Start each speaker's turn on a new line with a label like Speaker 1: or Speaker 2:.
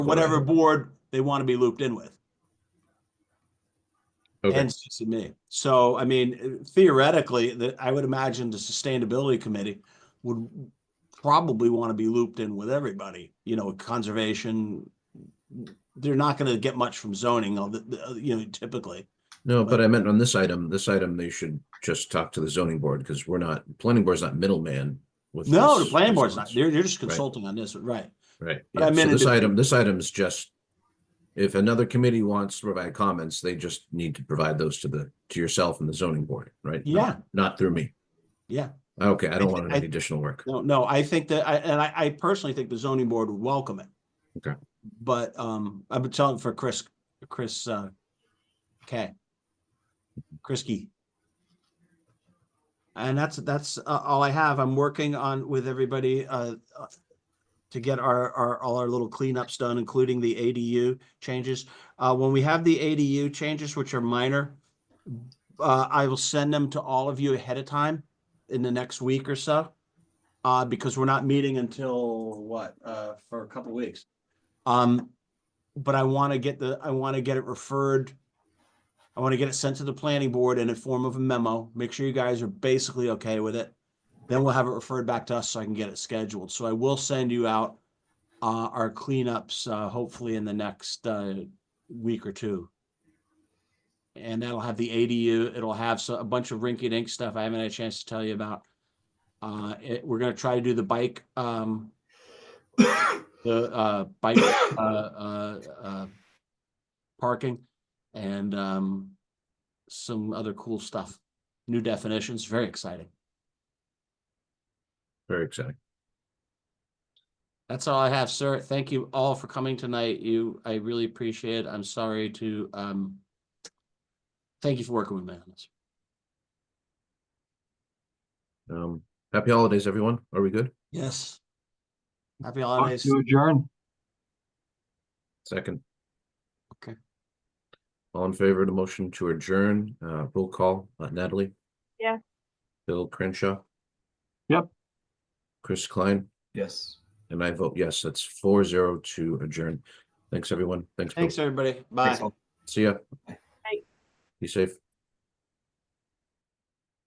Speaker 1: from whatever board they want to be looped in with.
Speaker 2: Okay,
Speaker 1: and CCME. So, I mean, theoretically, that I would imagine the sustainability committee would probably want to be looped in with everybody, you know, conservation. They're not going to get much from zoning, although, the- you know, typically.
Speaker 2: no, but I meant on this item, this item, they should just talk to the zoning board because we're not, planning board's not middleman with.
Speaker 1: No, the
Speaker 2: this
Speaker 1: planning board's not,
Speaker 2: response.
Speaker 1: they're, they're just
Speaker 2: Right.
Speaker 1: consulting on this, right?
Speaker 2: Right,
Speaker 1: but I
Speaker 2: yeah, so
Speaker 1: meant it
Speaker 2: this
Speaker 1: to-
Speaker 2: item, this item is just, if another committee wants to provide comments, they just need to provide those to the, to yourself and the zoning board, right? Not-
Speaker 1: Yeah.
Speaker 2: Not through me.
Speaker 1: Yeah.
Speaker 2: Okay, I don't
Speaker 1: thi-
Speaker 2: want
Speaker 1: I-
Speaker 2: any additional work.
Speaker 1: No, no, I think that, I, and I, I personally think the zoning board would welcome it.
Speaker 2: Okay.
Speaker 1: But, um, I've been telling for Chris, Chris, uh, K. Krisky. And that's, that's uh, all I have. I'm working on with everybody, uh, uh, to get our, our, all our little cleanups done, including the ADU changes. Uh, when we have the ADU changes, which are minor, uh, I will send them to all of you ahead of time in the next week or so. Uh, because we're not meeting until what, uh, for a couple weeks. Um, but I want to get the, I want to get it referred. I want to get it sent to the planning board in a form of a memo. Make sure you guys are basically okay with it. Then we'll have it referred back to us so I can get it scheduled. So I will send you out uh, our cleanups, uh, hopefully in the next, uh, week or two. And that'll have the ADU, it'll have so- a bunch of rinky-dink stuff I haven't had a chance to tell you about. Uh, it, we're gonna try to do the bike, um, the, uh, bike, uh, uh, uh, parking and, um, some other cool stuff. New definitions, very exciting.
Speaker 2: Very exciting.
Speaker 1: That's all I have, sir. Thank you all for coming tonight. You, I really appreciate it. I'm sorry to, um, thank you for working with me on this.
Speaker 2: Um, happy holidays, everyone. Are we good?
Speaker 1: Yes. Happy
Speaker 3: Motion
Speaker 1: holidays.
Speaker 3: To adjourn.
Speaker 2: Second.
Speaker 1: Okay.
Speaker 2: All in favor of the motion to adjourn, uh, roll call, uh, Natalie?
Speaker 4: Yes.
Speaker 2: Bill Crenshaw?
Speaker 3: Yep.
Speaker 2: Chris Klein?
Speaker 3: Yes.
Speaker 2: And I vote yes, that's four zero to adjourn. Thanks, everyone. Thanks.
Speaker 1: Uh,
Speaker 2: Bill.
Speaker 1: Thanks, everybody. Bye.
Speaker 2: See ya.
Speaker 4: Bye.
Speaker 2: Be safe.